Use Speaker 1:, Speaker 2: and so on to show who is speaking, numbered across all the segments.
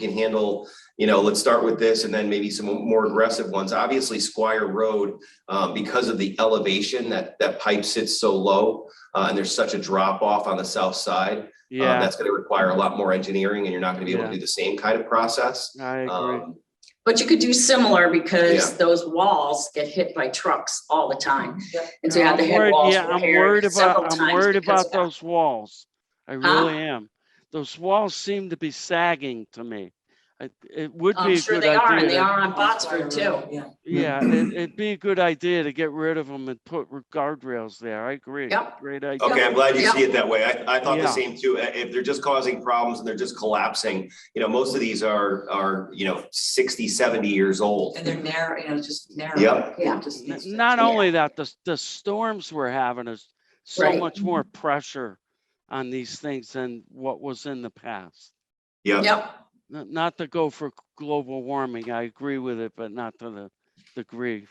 Speaker 1: can handle, you know, let's start with this and then maybe some more aggressive ones. Obviously Squire Road, um, because of the elevation that, that pipe sits so low, uh, and there's such a drop off on the south side. um,
Speaker 2: Yeah,
Speaker 1: That's gonna require a lot more engineering and you're not gonna be able to
Speaker 2: Yeah.
Speaker 1: do the same kind of process.
Speaker 2: I agree.
Speaker 1: Um,
Speaker 3: But you could do similar because
Speaker 1: Yeah.
Speaker 3: those walls get hit by trucks all the time.
Speaker 4: Yep.
Speaker 3: And so you have the
Speaker 2: I'm
Speaker 3: head
Speaker 2: worried-
Speaker 3: walls
Speaker 2: Yeah, I'm worried
Speaker 3: repaired several
Speaker 2: about,
Speaker 3: times.
Speaker 2: I'm worried
Speaker 3: because
Speaker 2: about
Speaker 3: of that.
Speaker 2: those walls. I really am. Those walls seem to be sagging to me. I- It would be
Speaker 3: I'm
Speaker 2: a
Speaker 3: sure
Speaker 2: good
Speaker 3: they are, and
Speaker 2: idea.
Speaker 3: they
Speaker 2: to-
Speaker 3: are on Botsford too.
Speaker 4: Yeah.
Speaker 2: Yeah, it- it'd be a good idea to get rid of them and put r- guardrails there. I agree.
Speaker 3: Yep. Oh,
Speaker 2: Great idea.
Speaker 1: Okay, I'm glad you
Speaker 3: Yeah.
Speaker 1: see it that way. I, I thought the
Speaker 2: Yeah.
Speaker 1: same too. I- If they're just causing problems and they're just collapsing, you know, most of these are, are, you know, 60, 70 years old.
Speaker 4: And they're narrow, you know, it's just narrow.
Speaker 1: Yep.
Speaker 3: Yeah.
Speaker 4: It just
Speaker 2: N-
Speaker 4: needs to-
Speaker 2: Not
Speaker 3: yeah.
Speaker 2: only that, the, the storms we're having is so
Speaker 3: Right.
Speaker 2: much more pressure on these things than what was in the past.
Speaker 1: Yeah.
Speaker 3: Yep,
Speaker 2: N- Not to go for global warming, I agree with it, but not to the degree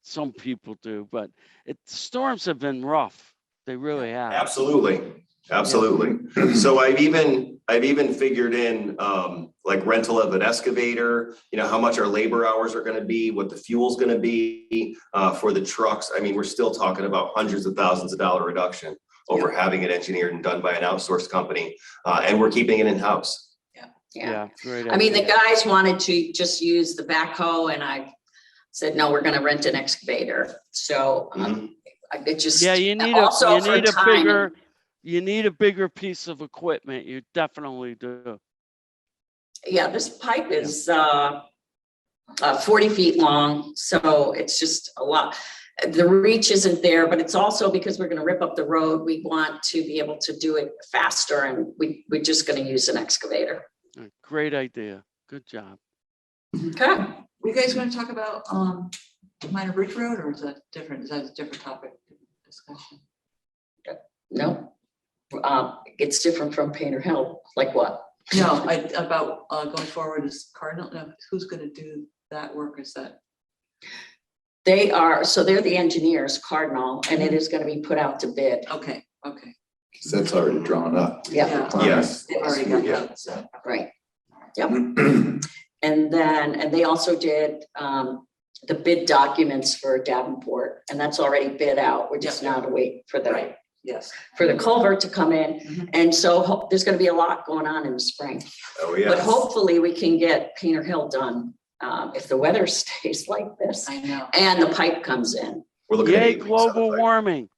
Speaker 2: some people do, but it, storms have been rough. They really have.
Speaker 1: Absolutely, absolutely. So I've even, I've even figured in um like rental of an excavator, you know, how much our labor hours are gonna be, what the fuel's gonna be uh for the trucks. I mean, we're still talking about hundreds of thousands of dollar reduction over having it engineered and done by an outsourced company, uh and we're keeping it in-house.
Speaker 3: yeah.
Speaker 2: great
Speaker 3: I mean, the
Speaker 2: idea.
Speaker 3: guys wanted to just use the backhoe and I said, no, we're gonna rent an excavator. So um,
Speaker 1: Mhm.
Speaker 3: I- it just.
Speaker 2: Mm-hmm. Yeah, you need a,
Speaker 3: also
Speaker 2: you
Speaker 3: for
Speaker 2: need a
Speaker 3: time and-
Speaker 2: bigger, you need a bigger piece of equipment. You definitely do.
Speaker 3: Yeah, this pipe is uh uh forty feet long, so it's just a lot. The reach isn't there, but it's also because we're gonna rip up the road, we want to be able to do it faster and we we're just gonna use an excavator.
Speaker 2: Uh, Great idea. Good job.
Speaker 3: Okay,
Speaker 4: Were you guys gonna talk about, um, minor bridge road or is that different? Is that a different topic discussion?
Speaker 3: no. Uh, it's different from Painter Hill, like what?
Speaker 4: No, I, about, uh, going forward is Cardinal, no, who's gonna do that work? Is that?
Speaker 3: They are, so they're the engineers, Cardinal, and it is gonna be put out to bid.
Speaker 4: Okay, okay.
Speaker 5: Because that's already drawn up.
Speaker 3: Yeah,
Speaker 1: Yes.
Speaker 4: They've already got
Speaker 1: Yeah.
Speaker 4: that, so.
Speaker 3: right. And then, and they also did um the bid documents for Davenport, and that's already bid out. We're just now to wait for the,
Speaker 4: Right. Yes.
Speaker 3: for the culvert to come in.
Speaker 4: Mhm.
Speaker 3: And so ho- there's gonna be a lot going on in the spring.
Speaker 1: Oh,
Speaker 3: But
Speaker 1: yeah.
Speaker 3: hopefully, we can get Painter Hill done um if the weather stays like this
Speaker 4: I know.
Speaker 3: and the pipe comes in.
Speaker 1: We're looking at
Speaker 2: Yay,
Speaker 1: eight weeks on the
Speaker 2: global
Speaker 1: pipe.
Speaker 2: warming.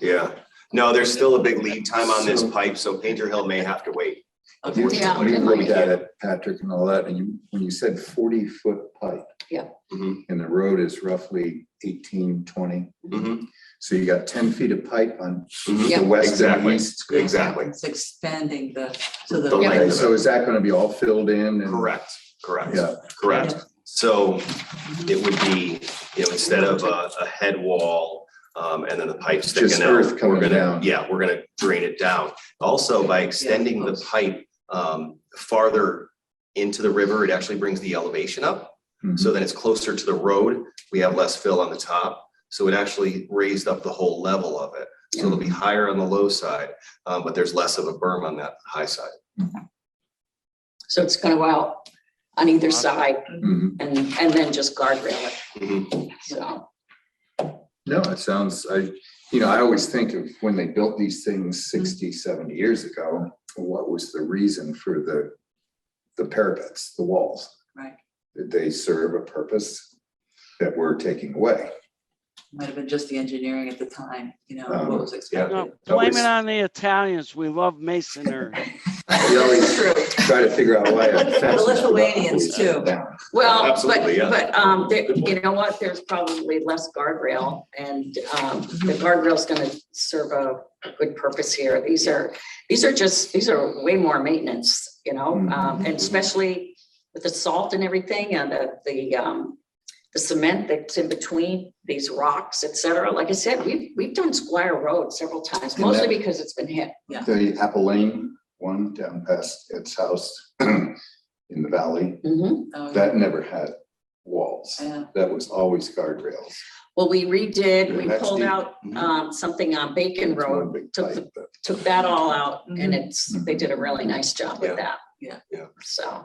Speaker 1: Yeah. No, there's still a big lead time on this pipe, so Painter Hill may have to wait.
Speaker 4: Okay.
Speaker 5: When
Speaker 3: Yeah,
Speaker 5: you
Speaker 3: it might
Speaker 5: looked
Speaker 3: be.
Speaker 5: at it, Patrick and all that, and you, when you said forty foot pipe.
Speaker 3: Yeah.
Speaker 1: Mhm.
Speaker 5: And the road is roughly 18, 20.
Speaker 1: Mhm.
Speaker 5: so you got ten feet of pipe on
Speaker 1: Mhm.
Speaker 3: Yeah.
Speaker 5: the west and
Speaker 1: Exactly.
Speaker 5: east.
Speaker 1: Exactly.
Speaker 4: It's expanding the, so
Speaker 1: The
Speaker 4: the.
Speaker 1: length.
Speaker 5: Okay, so is that gonna be all filled in and?
Speaker 1: Correct, correct.
Speaker 5: Yeah,
Speaker 1: Correct. So it would be, you know, instead of a, a head wall, um, and then the pipe
Speaker 5: Just
Speaker 1: sticking
Speaker 5: earth
Speaker 1: out, we're
Speaker 5: coming
Speaker 1: gonna,
Speaker 5: down.
Speaker 1: yeah, we're gonna drain it down. Also, by extending the
Speaker 4: close.
Speaker 1: pipe, um, farther into the river, it actually brings the elevation up.
Speaker 5: Mhm.
Speaker 1: So then it's closer to the road. We have less fill on the top. So it actually raised up the whole level of it. So it'll be higher on the low side, um, but there's less of a berm on that high side.
Speaker 3: So it's gonna go out on either
Speaker 2: Awesome.
Speaker 3: side
Speaker 5: Mhm.
Speaker 3: and and then just guardrail it,
Speaker 1: Mhm.
Speaker 3: so.
Speaker 5: No, it sounds, I, you know, I always think of when they built these things
Speaker 4: Mm-hmm.
Speaker 5: 60, 70 years ago, what was the reason for the, the parapets, the walls?
Speaker 4: Right.
Speaker 5: Did they serve a purpose that we're taking away?
Speaker 4: Might have been just the engineering at the time, you know,
Speaker 5: Um,
Speaker 4: what was
Speaker 2: No,
Speaker 4: expected.
Speaker 2: blame
Speaker 5: was-
Speaker 2: it on the Italians. We love masonry.
Speaker 5: We always try to figure out why. a
Speaker 4: The
Speaker 5: fence is
Speaker 4: Lithuanians,
Speaker 5: up,
Speaker 4: too.
Speaker 5: down.
Speaker 3: Well,
Speaker 1: Absolutely,
Speaker 3: but,
Speaker 1: yeah.
Speaker 3: but, um, there-
Speaker 1: Good point.
Speaker 3: you know what, there's probably less guardrail and, um, the guardrail's gonna serve a good purpose here. These are, these are just, these are way more maintenance, you know, um, and especially with the salt and everything and the, the, um, the cement that's in between these rocks, et cetera. Like I said, we've, we've done Squire Road several times,
Speaker 5: And that-
Speaker 3: mostly because it's been hit.
Speaker 5: The Apple Lane one down past its house in the valley,
Speaker 3: Mhm.
Speaker 4: Oh,
Speaker 5: that never had walls.
Speaker 4: Yeah.
Speaker 5: That was always guardrails.
Speaker 3: Well, we redid, we
Speaker 5: Yeah, that's
Speaker 3: pulled
Speaker 5: deep.
Speaker 3: out,
Speaker 1: Mhm.
Speaker 3: um, something on Bacon
Speaker 5: It's
Speaker 3: Road
Speaker 5: one big
Speaker 3: took the
Speaker 5: pipe, but-
Speaker 3: took that all out and
Speaker 4: Mhm.
Speaker 3: it's, they did a really nice job
Speaker 1: Yeah.
Speaker 3: with that.
Speaker 4: Yeah.
Speaker 1: Yeah.
Speaker 3: So.